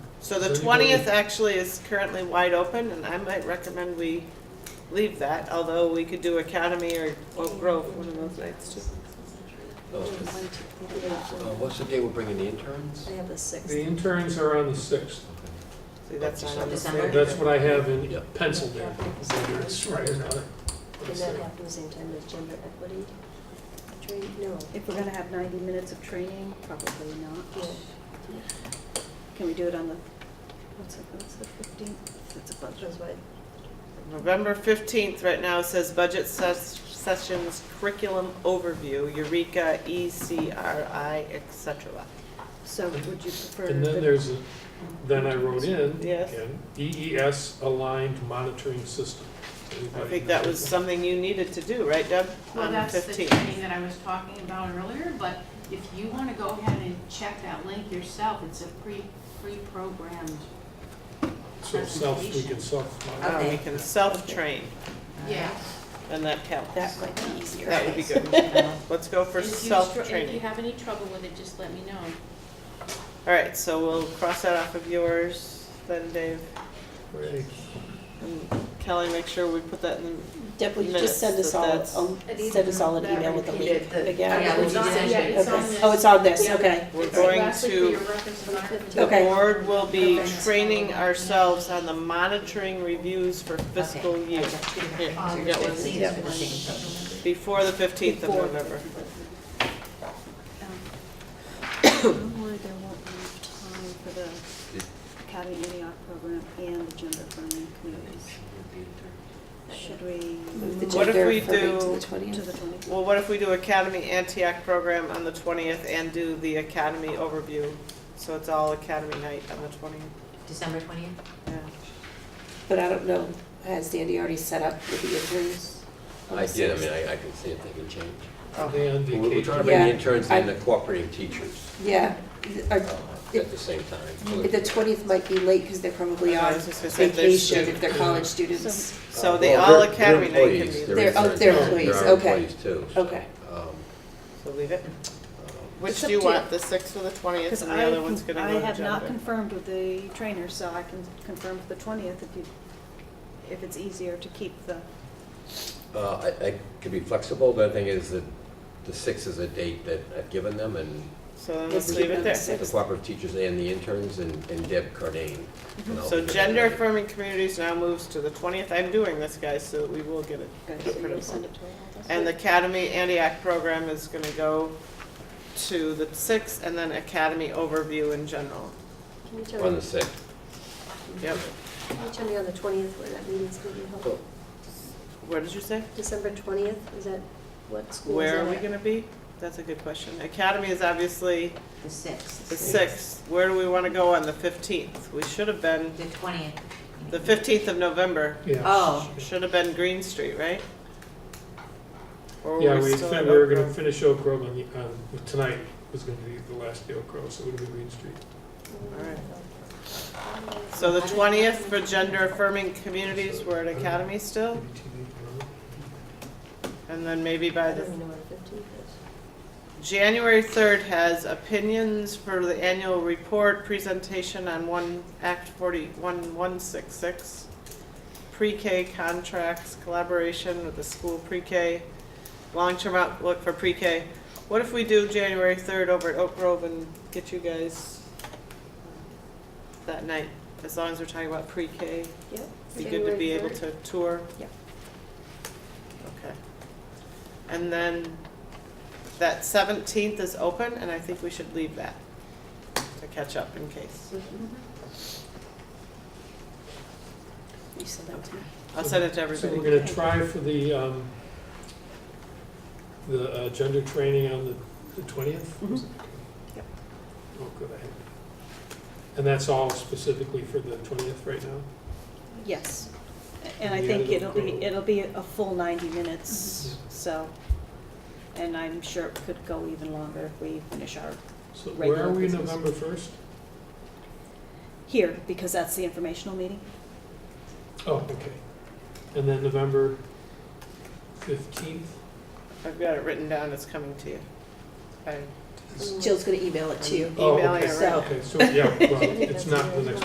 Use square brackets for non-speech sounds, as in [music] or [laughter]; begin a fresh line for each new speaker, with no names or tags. So the
Does it go
twentieth
to-
actually is currently wide open, and I might recommend we leave that, although we could do Academy or Oak Grove one of those nights too.
Oh.
Uh, What's the day we're bringing the interns?
I have the sixth.
The interns are on the sixth.
See, that's not on the
December?
same.
That's what I have in
Yeah.
penciled in. Whether it's right or not.
Did that happen the same time as gender equity training? No.
If we're gonna have ninety minutes of training, probably not.
Yeah.
Can we do it on the, what's it, what's the fifteenth? That's a budget.
That's why,
November fifteenth, right now, says budget ses- sessions, curriculum overview, Eureka, E ECRI, et cetera.
So would you prefer?
And
the-
then there's, a- then I wrote in,
Yes.
again, EES aligned monitoring system.
I think that was something you needed to do, right, Deb?
Well,
On the
that's the
15th.
training that I was talking about earlier, but if you want to go ahead and check that link yourself, it's a pre, pre-programmed.
So self, we can
presentation.
self.
Uh, we can self-train,
Yes.
and that counts.
That might be easier.
That would be good.
[laughs]
Let's go for
If you str- If you
self-training.
have any trouble with it, just let me know.
All right, so we'll cross that off of yours, then Dave.
Right.
And Kelly, make sure we put that in
Deb, will you just send us all,
Minutes, but
um, send us all an email with the link again?
Yeah, we
It's on-
just-
yeah, it's on
Okay.
this.
Oh, it's on this,
Yeah.
okay.
the, we're
It's
going
lastly for your
to,
reference in our-
the
Okay.
board will be
Okay.
training ourselves on the monitoring reviews for fiscal
Okay,
year.
I got two.
Here,
Um,
you got one.
Please,
Yeah.
for the same.
Before the fifteenth of
Before.
November.
Don't worry, there won't be enough time for the Academy in the Art program and the gender affirming communities. Should we move
The
What if
gender
we
affirming to
do-
the 20th?
to the twentieth?
Well, what if we do Academy Antioch program on the twentieth and do the Academy overview? So it's all Academy night on the twentieth.
December twentieth?
Yeah.
But I don't know, has Dandy already set up with the interns?
I did, I mean, I, I can see if they can change.
Oh.
Are they on
We're we're trying
vacation?
to bring the
Yeah.
interns and the cooperating teachers
Yeah, th-
uh,
uh,
at the same time.
the twentieth might be late because they're probably
Oh, I
on
was just gonna say, they're
vacation if they're college students.
So
Uh,
the
well,
all
they're-
Academy
they're
night can
employees,
be,
They're- oh,
interns,
they're
they are
employees, okay.
employees too, so,
Okay.
um,
so leave it.
um,
Which
It's
do
up
you
to you.
want, the sixth or the twentieth,
Because
and the
I,
other one's
can-
gonna
I
go to
have not
gender.
confirmed with the trainer, so I can confirm for the twentieth if you, if it's easier to keep the,
Uh, I, I could be flexible, but the thing is that the sixth is a date that I've given them and
So then
Let's
let's leave
keep
it
it
there.
the
the cooperative teachers and the interns and, and Deb Cardane. and I'll
So
figure
gender
that out.
affirming communities now moves to the twentieth. I'm doing this, guys, so we will get it.
okay, so
Put
you're
it
gonna
on.
send it to all of us?
And the Academy Antioch program is gonna go to the sixth, and then Academy overview in general.
Can you tell
On
me,
the sixth.
Yep.
can you tell me on the twentieth where that meeting's gonna be held?
What did you say?
December twentieth, is that, what school is that
Where are we
at?
gonna be? That's a good question. Academy is obviously
The sixth.
the sixth. Where do we wanna go on the fifteenth? We should have been,
The twentieth.
the fifteenth of November,
Yeah.
Oh.
Should have been Green Street, right? Or were
Yeah, we,
still at
fin- we were
Oak
gonna
Grove?
finish Oak Grove on the, um, tonight was gonna be the last day Oak Grove, so it would be Green Street.
Alright. So the twentieth for gender affirming communities, we're at Academy still,
Maybe TV tomorrow.
and then maybe by
I
the,
don't even know where the fifteenth is.
January third has opinions for the annual report presentation on one, Act forty-one, one six six. Pre-K contracts, collaboration with the school pre-K, long-term outlook for pre-K. What if we do January third over at Oak Grove and get you guys uh, that night, as long as we're talking about pre-K?
Yep.
Be good to be
January
able
third.
to tour?
Yeah.
Okay. And then that seventeenth is open and I think we should leave that to catch up in case.
You said that to me.
I'll send it to
So we're
everybody.
gonna try for the, um, the, uh, gender training on the, the twentieth?
Yep.
Oh, good, I had. And that's all specifically for the twentieth right now?
yes. And I
Yeah,
think it'll
it'll
be,
go-
it'll be a full ninety minutes,
Mhm.
so. And I'm sure it could go even longer if we finish our,
So where
Regular
are we,
business.
November first?
here, because that's the informational meeting.
Oh, okay. And then November fifteenth?
I've got it written down, it's coming to you. I-
Jill's gonna email it to you.
Oh,
Email it
okay.
right
So-
Okay, so, yeah, well, it's not the next